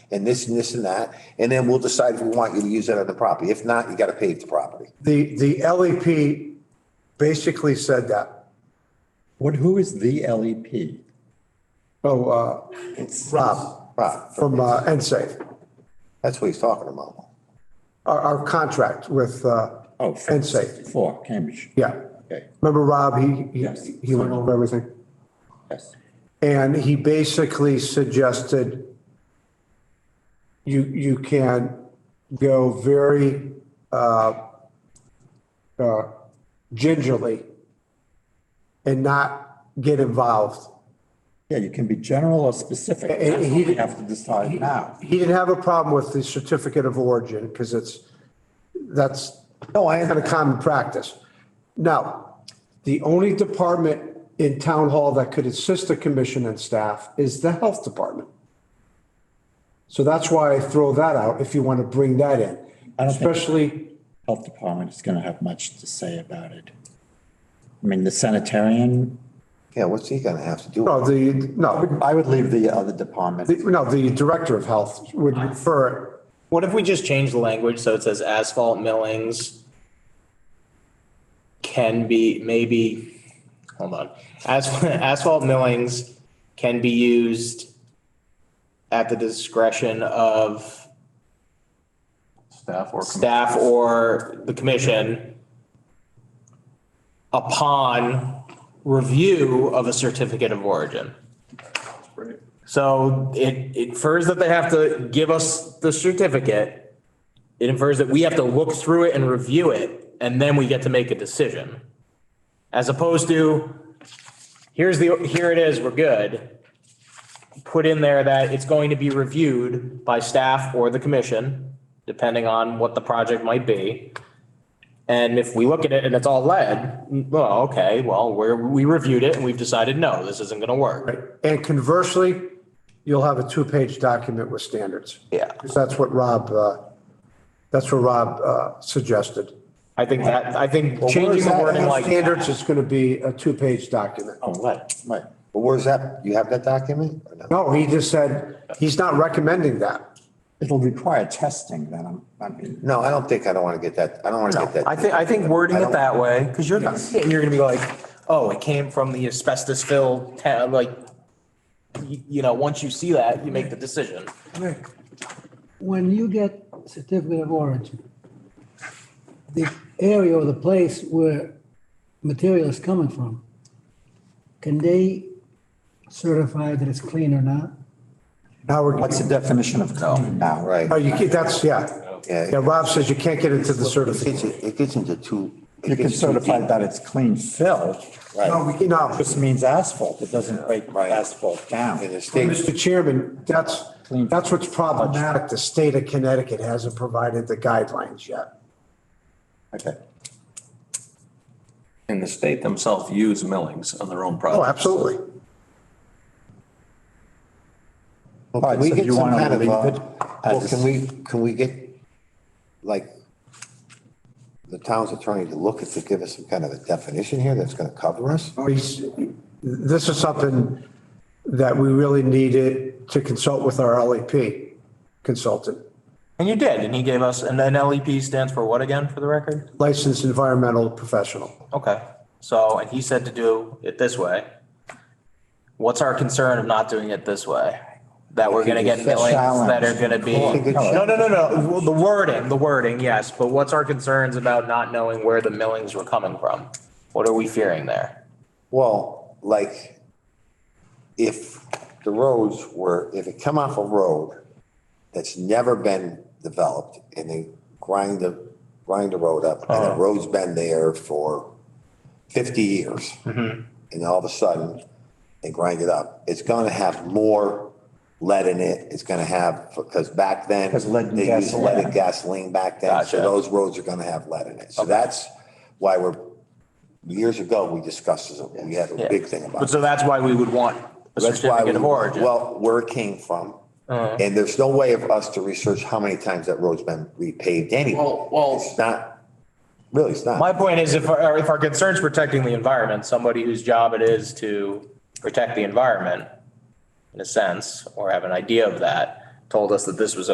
and this and this and that. And then we'll decide if we want you to use that on the property. If not, you got to pave the property. The, the LEP basically said that. What, who is the E LEP? Oh, uh, Rob Right. from uh, NSAFE, That's what he's talking about. our, our contract with uh, Oh, NSAFE. for Cambridge. Yeah. Okay, Remember Rob, he, Yes. he, he went over everything. yes. And he basically suggested you, you can go very uh, uh, gingerly and not get involved. Yeah, you can be general or specific. And- and That's he what we did- have to decide now. He didn't have a problem with the certificate of origin because it's, that's No, I kind of common practice. Now, the only department in town hall that could assist the commission and staff is the health department. So that's why I throw that out if you want to bring that in, I don't think- especially, Health department is gonna have much to say about it. I mean, the sanitarian, Yeah, what's he going to have to do? no, the, no, I would leave the other department. the- no, the director of health would refer What if we just change the language so it says asphalt millings can be maybe, hold on, As- asphalt millings can be used at the discretion of Staff or. staff or the commission upon review of a certificate of origin. Right. So it it infers that they have to give us the certificate. It infers that we have to look through it and review it, and then we get to make a decision. As opposed to, here's the, here it is, we're good. Put in there that it's going to be reviewed by staff or the commission, depending on what the project might be. And if we look at it and it's all lead, well, okay, well, we're, we reviewed it and we've decided, no, this isn't gonna work. And conversely, you'll have a two-page document with standards. Yeah. 'Cause that's what Rob, uh, that's what Rob uh, suggested. I think that, I think where's changing the that wording in like. Standards is going to be a two-page document. Oh, right, Right. But where's that? You have that document or no? No, he just said, he's not recommending that. it'll require testing then, I'm- I mean, No, I don't think I don't want to get that. I don't want to get that. I think, I think wording I it don't- that way, because you're, gonna see it and you're gonna be like, oh, it came from the asbestos filled, ta- like, you, you know, once you see that, you make the decision. Rick, when you get certificate of origin, the area or the place where material is coming from, can they certify that it's clean or not? Now we're, what's the definition of clean now? Right. oh, you, can't- that's, yeah. Yeah, Yeah. Rob says you can't get into the It gets, certificate. it gets into two. it You can gets too certify deep. that it's clean fill, No, Right. we- no, just means asphalt, it doesn't break asphalt And down. the state, Mr. Chairman, that's, that's what's problematic. The state of Connecticut hasn't provided the guidelines yet. Okay. And the state themselves use millings on their own Oh, projects. absolutely. well, All can right, we so get you some wanna kind of, leave uh, it as well, is? can we, can we get, like, the town's attorney to look at, to give us some kind of a definition here that's going to cover us? He's- This is something that we really needed to consult with our LEP consultant, And you did, and he gave us, and then LEP E stands for what again, for the record? licensed environmental professional. Okay, so, and he said to do it this way. What's our concern of not doing it this way? That we're gonna get It's a millings that are challenge. gonna be. It's a good No, no, no, no, well, the wording, the wording, yes, but what's our concerns about not knowing where the millings were coming from? What are we fearing there? Well, like, if the roads were, if it come off a road that's never been developed and they grind the, grind the road up and the road's been there for fifty years. And all of a sudden, they grind it up, it's gonna have more lead in it, it's gonna have, because back then. 'Cause lead and They used gasoline. lead and gasoline back then, so Gotcha. those roads are gonna have lead in it. So that's why we're years ago, we discussed this, we had a Yeah. big thing about But it. so that's why we would want a Uh-huh. That's why, certificate we- of origin. well, where it came from. And there's no way of us to research how many times that road's been repaved anyway. Well, well, It's not, really, it's My not. point is if, our- if our concern's protecting the environment, somebody whose job it is to protect the environment in a sense, or have an idea of that, told us that this was